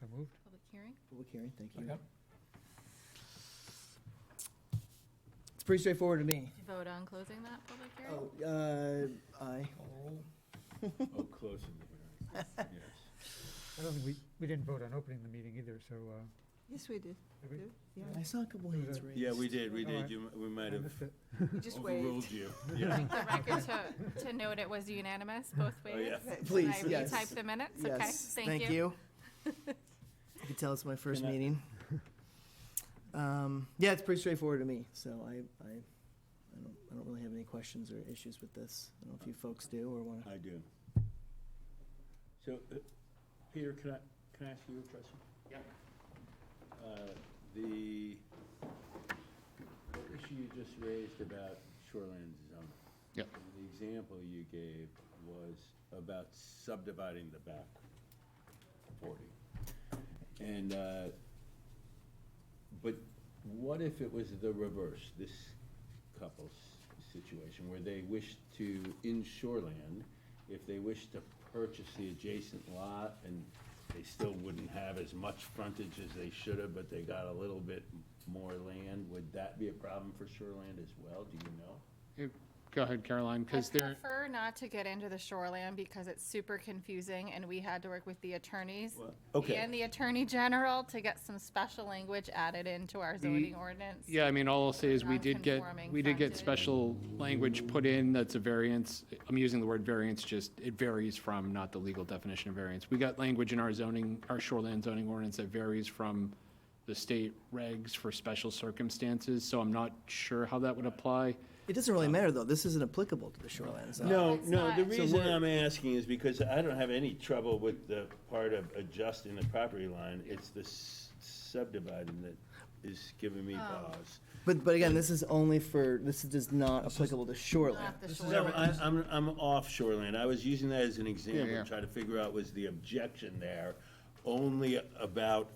So moved. Public hearing? Public hearing, thank you. Second. It's pretty straightforward to Did me. you vote on closing that public hearing? Oh, uh, aye. Call the roll. Oh, closing the hearing, yes. I don't think we, we didn't vote on opening the meeting either, so, uh, Yes, we did. did we? Yeah, I saw a couple hands raised. Yeah, we did, we Alright. did, you, m- we might I have missed it. you just overruled waved. you, I Oh, yeah. think the record to, to note it was unanimous both Oh, ways. yeah. Right. Please, Did I yes. retype the minutes? Okay, Yes, thank you. You can tell it's my first Can I- meeting. Um, yeah, it's pretty straightforward to me, so I, I, I don't, I don't really have any questions or issues with this. I don't know if you folks do or wanna, I do. So, uh, Peter, can I, can I ask you a question? Yeah. The issue you just raised about shoreline zoning. Yeah. And The example you gave was about subdividing the back forty. And, uh, but what if it was the reverse, this couple's situation, where they wish to, in shoreland, if they wish to purchase the adjacent lot, and they still wouldn't have as much frontage as they should have, but they got a little bit more land, would that be a problem for shoreland as well, do you know? Go ahead, Caroline, because I there, prefer not to get into the shoreline because it's super confusing and we had to work with the attorneys Well, okay. and the attorney general to get some special language added into our zoning ordinance. yeah, I mean, all I'll say is we did get, Non-conforming we did get frontage. special language put in that's a variance. I'm using the word variance, just it varies from, not the legal definition of variance. We got language in our zoning, our shoreland zoning ordinance that varies from the state regs for special circumstances, so I'm not sure how that would apply. it doesn't really matter though, this isn't applicable to the shoreline zone. No, It's no, the not. reason I'm asking is because I don't have any trouble with the part of adjusting the property line. It's the s- subdividing that is giving me Oh. pause. But, but again, this is only for, this is just not applicable to shoreline. Not the No, shoreline. I, I'm, I'm off shoreline. I was using that as an example, yeah. to try to figure out was the objection there only about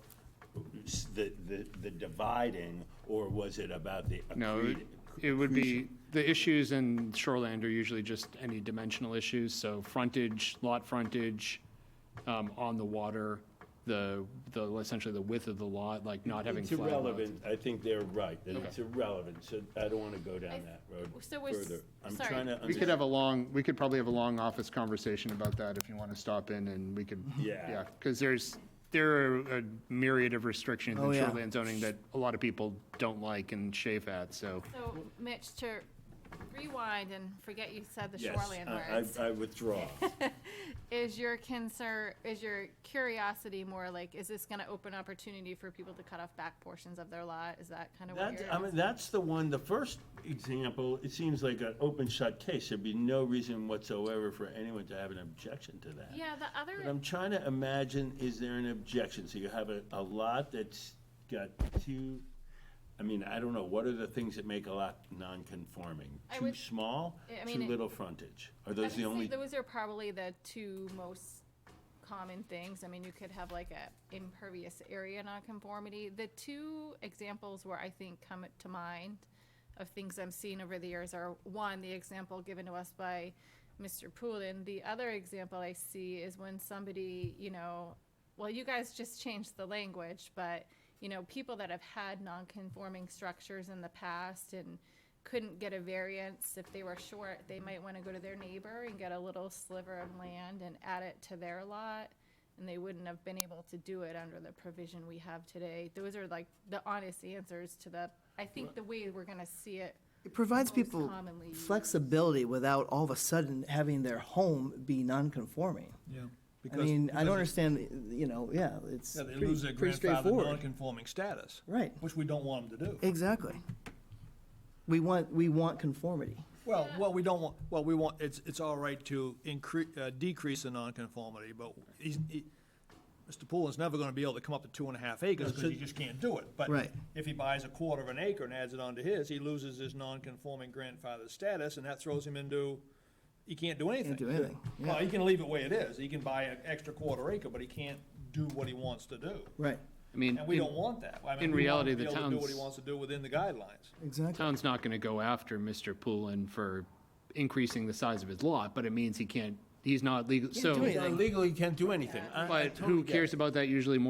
s- the, the, the dividing, or was it about the No, it- accreted? it would be, the issues in shoreland are usually just any dimensional issues, so frontage, lot frontage, um, on the water, the, the, essentially the width of the lot, like not having It's flat lots. irrelevant. I think they're right, that it's irrelevant, so I don't wanna go I- down that road so we're s- further. I'm sorry. trying to We could understand. have a long, we could probably have a long office conversation about that if you want to stop in and we could. Yeah. Yeah, because there's, there are a myriad of restrictions Oh, in yeah. shoreland zoning that a lot of people don't like and chafe at, so. So Mitch, to rewind and forget you said the Yes, shoreline I- words. I, I withdraw. Is your concern, is your curiosity more like, is this gonna open opportunity for people to cut off back portions of their lot? Is that kind of what That, I you're? mean, that's the one, the first example, it seems like an open shut case. There'd be no reason whatsoever for anyone to have an objection to that. Yeah, the But other, I'm trying to imagine, is there an objection? So you have a, a lot that's got two, I mean, I don't know, what are the things that make a lot non-conforming? I Too would- small, I too mean, it- little frontage? Are I those the would say only, those are probably the two most common things. I mean, you could have like a impervious area nonconformity. The two examples where I think come to mind of things I'm seeing over the years are, one, the example given to us by Mr. Poulin. The other example I see is when somebody, you know, well, you guys just changed the language, but, you know, people that have had nonconforming structures in the past and couldn't get a variance, if they were short, they might want to go to their neighbor and get a little sliver of land and add it to their lot, and they wouldn't have been able to do it under the provision we have today. Those are like the honest answers to the, I think the way we're going to see it It provides most people commonly used. flexibility without all of a sudden having their home be non-conforming. Yeah. I because- mean, I because don't it- understand, you know, yeah, it's Yeah, they pretty- lose their pretty grandfather straightforward. non-conforming status. Right. Which we don't want them to do. Exactly. We want, we want conformity. Well, what we don't want, what we want, it's, it's all right to increase, uh, decrease the nonconformity, but he's, he, Mr. Pullen's never gonna be able to come up to two and a half acres, because he just can't do it. But Right. if he buys a quarter of an acre and adds it onto his, he loses his non-conforming grandfather status, and that throws him into, he can't do anything. Can't do anything, Well, he can leave it the way it is, he can buy an extra quarter acre, but he can't do what he wants to do. Right, I mean, And we in- don't want that. I mean, in we want reality, him to the be able to Do what he town's- wants to do within the guidelines. exactly. town's not going to go after Mr. Poulin for increasing the size of his lot, but it means he can't, he's not legal, so. do anything. legally can't do anything. I- I But totally who get it. cares about that usually more